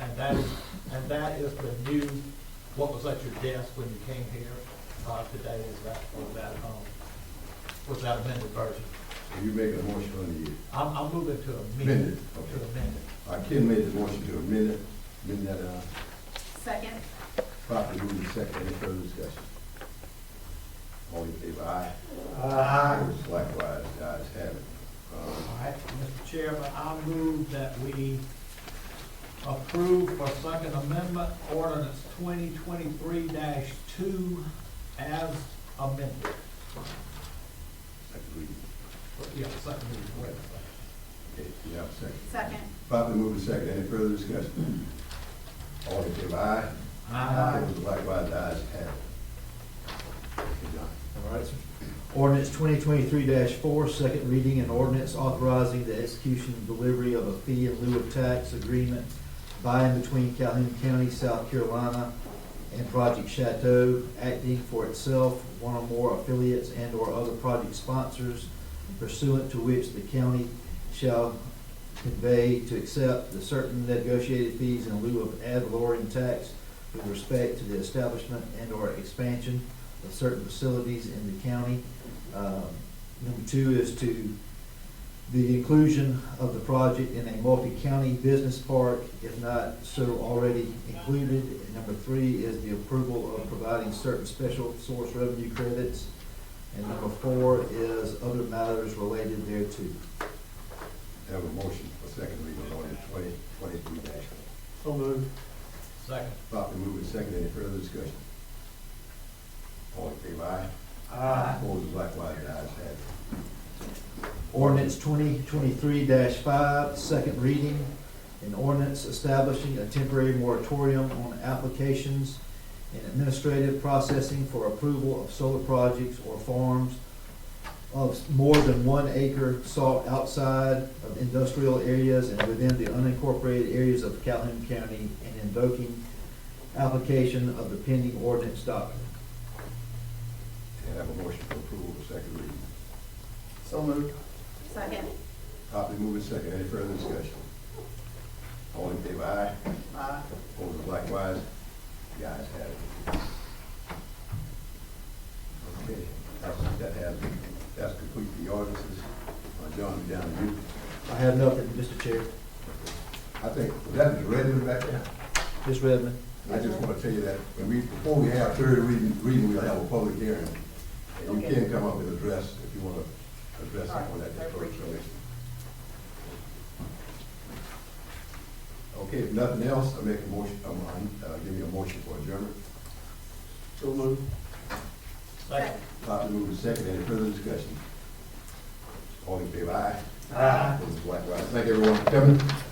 And that is, and that is the new, what was at your desk when you came here, uh, today is that, was that, um, was that amended version. You make a motion on the, I'm, I'm moving to amend, Amended, to okay. amend it. uh, Ken made the motion to amend it, amend that, uh, Second. properly moved in second, any further discussion? All in favor, aye? Opposed, Likewise, the ayes have it. All Um, right, Mr. Chairman, I move that we approve for Second Amendment ordinance twenty twenty-three two as amended. second reading. Yeah, second reading, wait a second. Okay, you have a second. Second. Properly moved in second, any further discussion? All in favor, aye? Opposed, Likewise, the ayes have it. Okay, John. All right, sir. Ordinance twenty twenty-three four, second reading, an ordinance authorizing the execution and delivery of a fee in lieu of tax agreement by and between Calhoun County, South Carolina, and Project Chateau, acting for itself, one or more affiliates and/or other project sponsors pursuant to which the county shall convey to accept the certain negotiated fees in lieu of ad valorem tax with respect to the establishment and/or expansion of certain facilities in the county. Um, Number two is to the inclusion of the project in a multi-county business park, if not so already included. And number three is the approval of providing certain special source revenue credits. And number four is other matters related thereto. Have a motion for second reading on ordinance twenty twenty-three dash four. So moved. Second. Properly moved in second, any further discussion? All in favor, aye? Opposed, likewise, the ayes have it. Ordinance twenty twenty-three five, second reading. An ordinance establishing a temporary moratorium on applications and administrative processing for approval of solar projects or farms of more than one acre sought outside of industrial areas and within the unincorporated areas of Calhoun County and invoking application of the pending ordinance doctrine. And have a motion for approval of second reading. So moved. Second. Properly moved in second, any further discussion? All in favor, aye? Aye. Opposed, likewise, the ayes have it. Okay, that's, that has, that's complete the ordinances. Uh, John, we down to you. I have nothing, Mr. Chair. I think, was that the revenue back there? Ms. Redmond. I just want to tell you that, when we, before we have third reading, reading, we'll have a public hearing. And you Okay. can come up with an address if you want to address All right, something like I that. appreciate it. Okay, if nothing else, I make a motion, um, uh, give me a motion for adjournment. So moved. Second. Properly moved and seconded, any further discussion? All in favor, aye? Aye. Those Likewise, thank everyone for coming.